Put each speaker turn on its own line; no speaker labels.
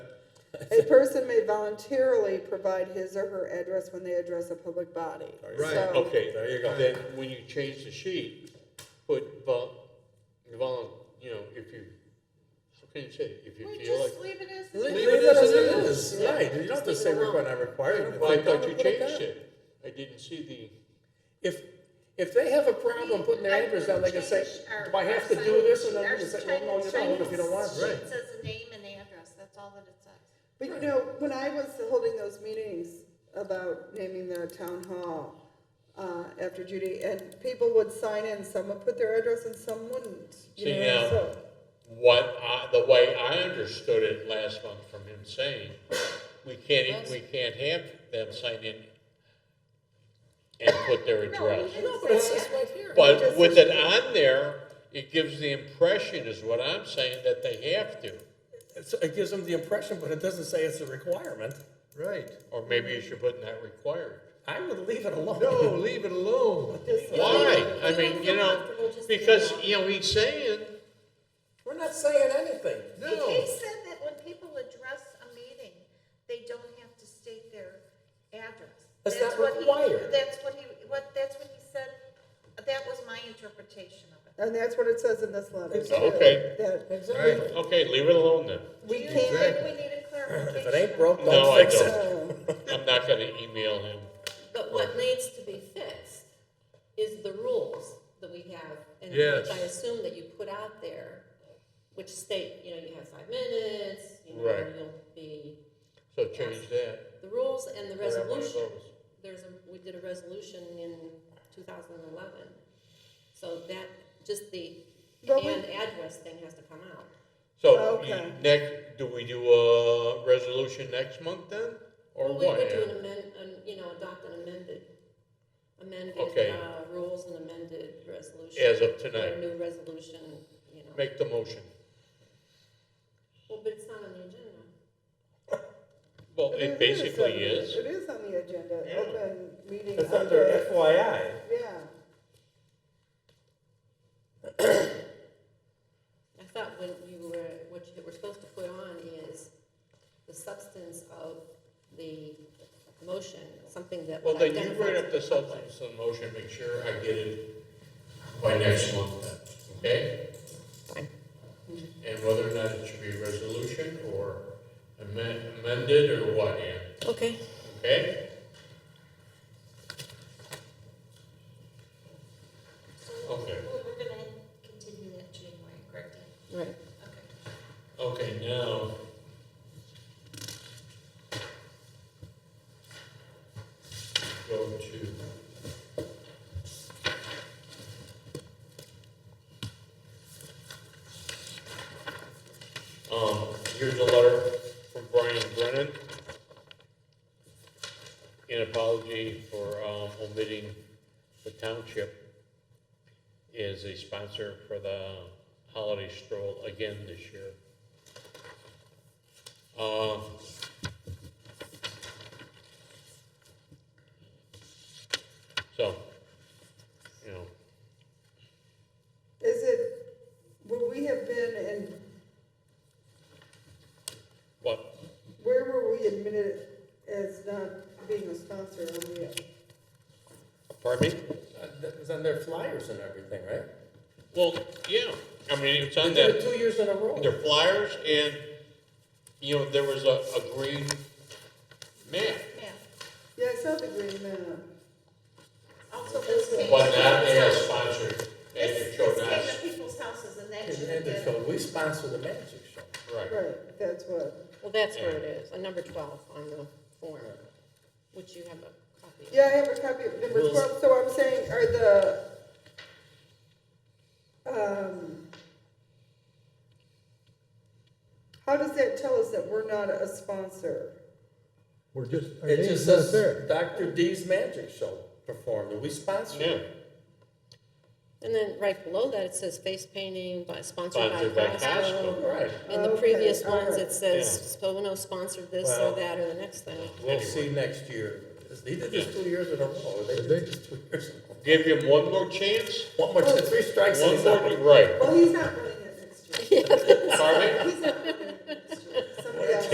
The person may voluntarily provide his or her address when they address a public body.
Oh,
There you go.
Right.
So-
Okay.
There you go.
Then when you change the sheet, put vol, volun, you know, if you, how can you say, it? if you
We
feel like.
just leave it as.
Leave
Leave
it as
it as
it
it
is,
Yeah.
right, you don't have to
Just
say
leave it
we're
alone.
gonna require it. If
Well, I
they don't,
thought you
put down.
changed it. I didn't see
If, if they have a problem putting their
I
address down, they can say,
changed our-
do I have to
our
do this?
sign-
And then
our
you can say, well, no, you
sign-
don't, if you don't want
sign
to.
sheet Says the name and the address, that's all that it says.
But you know, when I was holding those meetings about naming the town hall uh, after Judy, and people would sign in, some would put their address and some wouldn't. You
See,
know,
now-
so
what I, the way I understood it last month from him saying, we can't, e- we can't have them sign in and put their address.
No, but it's just right here.
But with it on there, it gives the impression, is what I'm saying, that they have to.
It's- It gives them the impression, but it doesn't say it's a requirement.
Right,
Or maybe you should put not required.
I would leave it alone.
no, leave it alone.
Why? I mean, you know, because, you know, he's saying,
We're not saying anything.
He
no.
said that when people address a meeting, they don't have to state their address.
That's not
what he-
required.
That's what he, what, that's what he said, that was my interpretation of it.
And that's what it says in this letter. too,
oh, Okay.
That
Exactly.
Okay, leave it alone then.
Do
we
you
can't,
think we need a clarification?
If it ain't broke,
No,
don't
I
fix
don't.
it.
I'm not gonna email him.
But what needs to be fixed is the rules that we have, and
Yes.
which I assume that you put out there, which state, you know, you have five minutes, you know,
Right.
you'll be,
So change that.
the rules and the
Or have one of
resolution.
those.
There's a, we did a resolution in two thousand and eleven, so that, just the
But we-
and address thing has to come out.
So,
Okay.
you- next, do we do a resolution next month then, or
Well, we
what?
would do an amend, an- you know, adopt an amended,
Okay.
amended, uh, rules and amended resolution.
As of
Or a
tonight,
new resolution, you know.
make the motion.
Well, but it's not on the agenda.
Well,
It
it
is on
basically
the-
is.
It is on the agenda,
Yeah.
open meeting.
It's under
under-
FYI.
Yeah,
I thought what you were, what you were supposed to put on is the substance of the motion, something that
Well,
would
then you
identify.
bring
to
up the
public.
substance of the motion, make sure I get it by next month then, okay?
Fine.
And whether or not it should be a resolution or amen- amended or what, Ann,
Okay,
okay? Okay.
Well, we're gonna continue that January, correct?
right.
Okay.
Okay, now. Go to. Um, here's a letter from Brian Brennan. An apology for, um, omitting the township is a sponsor for the holiday stroll again this year. Uh, So, you know,
is it, would we have been in,
what,
where were we admitted as not being a sponsor when we?
pardon me?
Uh, That was on their flyers and everything, right?
Well, yeah, I mean, it's
They
on
did
that,
it two years in a row.
their flyers, and, you know, there was a, a green map.
Yeah,
Yeah, I saw the green map.
also this came.
But
to
not
people's
as
house.
sponsored, and
This,
it showed
this came
us,
to people's houses and that should have
And
been.
they showed, we sponsor the magic show.
right.
Right, that's what.
Well, that's where it is, on number twelve on the form, which you have a copy of.
Yeah, I have a copy of number
Rules.
twelve, so I'm saying, are the, um, how does that tell us that we're not a sponsor?
We're just, our
It just
name's not
says
there.
Dr. D's magic show performed, and we sponsored
Yeah,
it.
And then right below that, it says face painting by, sponsored by
Sponsored by
Costco.
Costco.
Right,
And the
Okay,
previous
all
ones,
right.
it says, Spono sponsored this
Well-
or that or the next thing.
we'll see next year. He did this two years in a row, they did
Did they?
this two years in a row.
give him one more chance,
One more, three strikes and
one
he's out.
more, right,
Well, he's not running it next year.
pardon me?
He's not